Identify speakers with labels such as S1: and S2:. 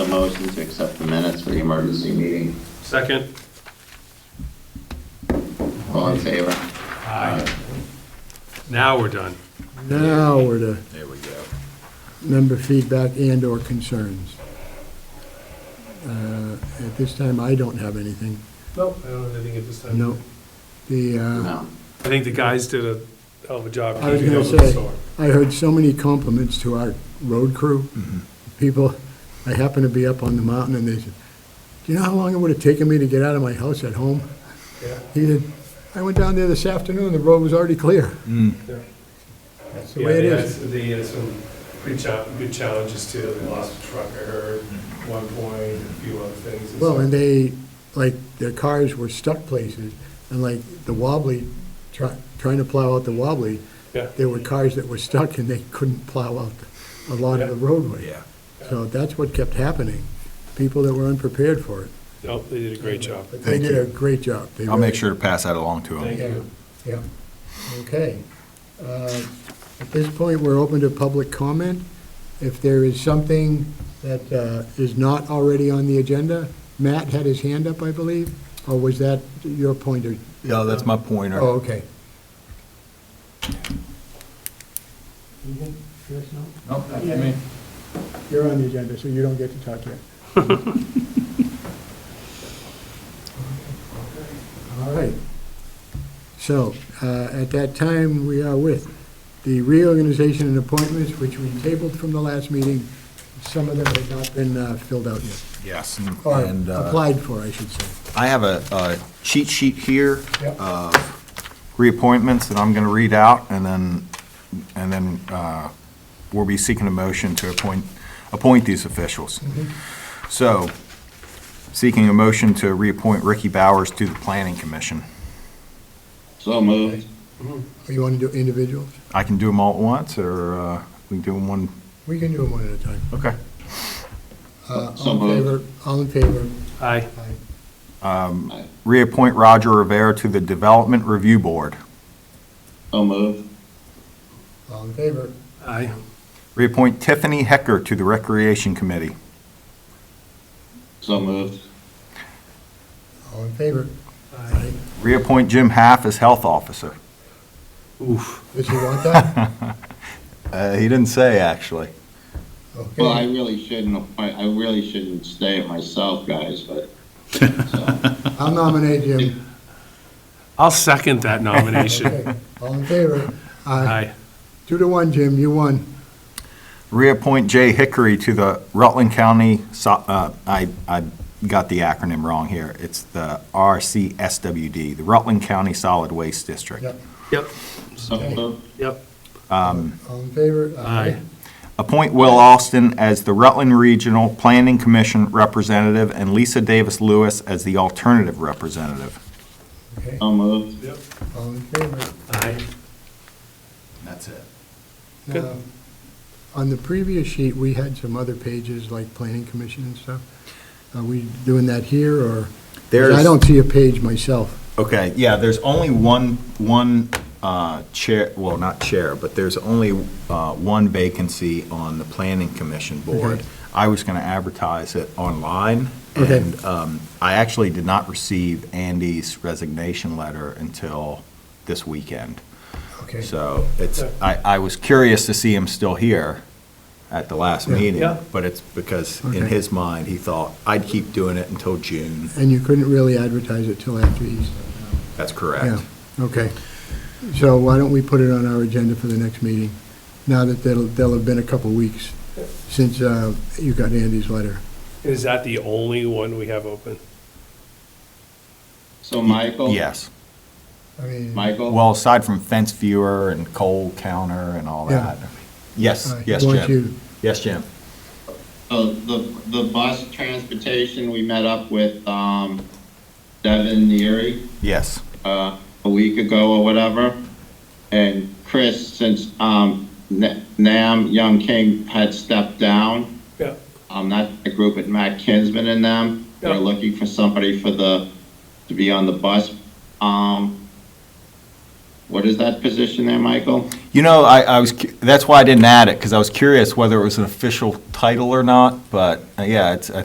S1: motion to accept the minutes for the emergency meeting.
S2: Second.
S1: All in favor?
S2: Now we're done.
S3: Now we're to
S4: There we go.
S3: member feedback and/or concerns. Uh, At this time, I don't have anything.
S2: No, I don't have anything at this time.
S3: No. The, uh,
S1: No.
S2: I think the guys did a hell of a job.
S3: I was
S2: keeping
S3: gonna
S2: up with the
S3: say,
S2: storm.
S3: I heard so many compliments to our road crew. People, I happened to be up on the mountain and they said, do you know how long it would have taken me to get out of my house at home?
S2: Yeah.
S3: He said, I went down there this afternoon, the road was already clear.
S2: Yeah.
S3: That's the
S2: Yeah,
S3: way it
S2: they
S3: is.
S2: had- They had some pretty cha- good challenges too. They lost a truck, I heard, at one point, and a few other things.
S3: Well, and
S2: so-
S3: they, like, their cars were stuck places, and like the wobbly, try- trying to plow out the wobbly,
S2: Yeah.
S3: there were cars that were stuck and they couldn't plow out a lot of the
S2: Yeah.
S3: roadway.
S4: Yeah.
S3: So that's what kept happening, people that were unprepared for it.
S2: No, they did a great job.
S3: But they
S4: Thank
S3: did
S4: you.
S3: a great job. They
S4: I'll make
S3: really-
S4: sure to pass that along to
S2: Thank
S4: him.
S3: Yeah,
S2: you.
S3: yeah. Okay. Uh, At this point, we're open to public comment. If there is something that uh, is not already on the agenda, Matt had his hand up, I believe, or was that your pointer?
S4: Yeah, that's my pointer.
S3: Oh, okay.
S4: Nope, that's
S3: me. You're on the agenda, so you don't get to talk yet. All right. So, uh, at that time, we are with the reorganization and appointments, which we tabled from the last meeting. Some of them have not been uh, filled out yet,
S4: Yes, and-
S3: or
S4: and uh,
S3: applied for, I should say. Uh,
S4: I have a a cheat sheet here
S3: Yep.
S4: of reappointments that I'm going to read out, and then, and then uh, we'll be seeking a motion to appoint, appoint these officials. So, seeking a motion to reappoint Ricky Bowers to the Planning Commission.
S1: So moved.
S3: Or you want to do individuals?
S4: I can do them all at once, or uh, we can do them one?
S3: We can do them one at a time.
S4: Okay.
S3: Uh,
S1: So
S3: All in favor?
S1: moved.
S3: All in favor?
S2: Aye.
S3: Aye.
S1: Aye.
S4: Reappoint Roger Rivera to the Development Review Board.
S1: So moved.
S3: All in favor?
S2: Aye.
S4: Reappoint Tiffany Hecker to the Recreation Committee.
S1: So moved.
S3: All in favor?
S2: Aye.
S4: Reappoint Jim Half as Health Officer.
S2: Oof.
S3: Does he want that?
S4: Uh, He didn't say, actually.
S3: Okay.
S1: Well, I really shouldn't, I I really shouldn't stay it myself, guys, but, so,
S3: I'll nominate Jim.
S2: I'll second that nomination.
S3: Okay. All in favor?
S2: Aye.
S3: Two to one, Jim, you won.
S4: Reappoint Jay Hickory to the Rutland County, So- uh, I, I got the acronym wrong here. It's the RCSWD, the Rutland County Solid Waste District.
S3: Yep.
S2: Yep,
S1: so moved.
S2: yep.
S3: All in favor?
S2: Aye.
S4: Appoint Will Austin as the Rutland Regional Planning Commission Representative and Lisa Davis Lewis as the Alternative Representative.
S3: Okay,
S1: So moved.
S2: Yep.
S3: all in favor?
S2: Aye.
S4: That's it.
S2: Good.
S3: Now, On the previous sheet, we had some other pages, like planning commission and stuff. Are we doing that here, or? 'cause I
S4: There's-
S3: don't see a page myself.
S4: Okay, yeah, there's only one, one uh, chair, well, not chair, but there's only uh, one vacancy on the Planning Commission Board.
S3: Okay.
S4: I was going to advertise it online,
S3: Okay.
S4: and um, I actually did not receive Andy's resignation letter until this weekend.
S3: Okay.
S4: So it's, I, I was curious to see him still here at the last
S3: Yeah.
S4: meeting,
S2: Yeah.
S4: but it's because in
S3: Okay.
S4: his mind, he thought, I'd keep doing it until June.
S3: And you couldn't really advertise it till after Easter?
S4: That's correct.
S3: Yeah, okay. So why don't we put it on our agenda for the next meeting, now that there'll, there'll have been a couple weeks since uh, you got Andy's letter.
S2: Is that the only one we have open?
S1: So Michael?
S4: Yes.
S3: I mean,
S1: Michael?
S4: Well, aside from fence viewer and coal counter and all
S3: Yeah.
S4: that. Yes,
S3: uh, he
S4: yes,
S3: wants
S4: Jim.
S3: you-
S4: Yes, Jim.
S1: So the, the bus transportation, we met up with, um, Devin Neary,
S4: Yes.
S1: uh, a week ago or whatever. And Chris, since, um, Na- Nam Young King had stepped down,
S2: Yeah.
S1: um, not the group, but Matt Kinsman and them, they're
S2: Yeah.
S1: looking for somebody for the, to be on the bus. Um, what is that position there, Michael?
S4: You know, I, I was, cu- that's why I didn't add it, because I was curious whether it was an official title or not, but uh, yeah, it's,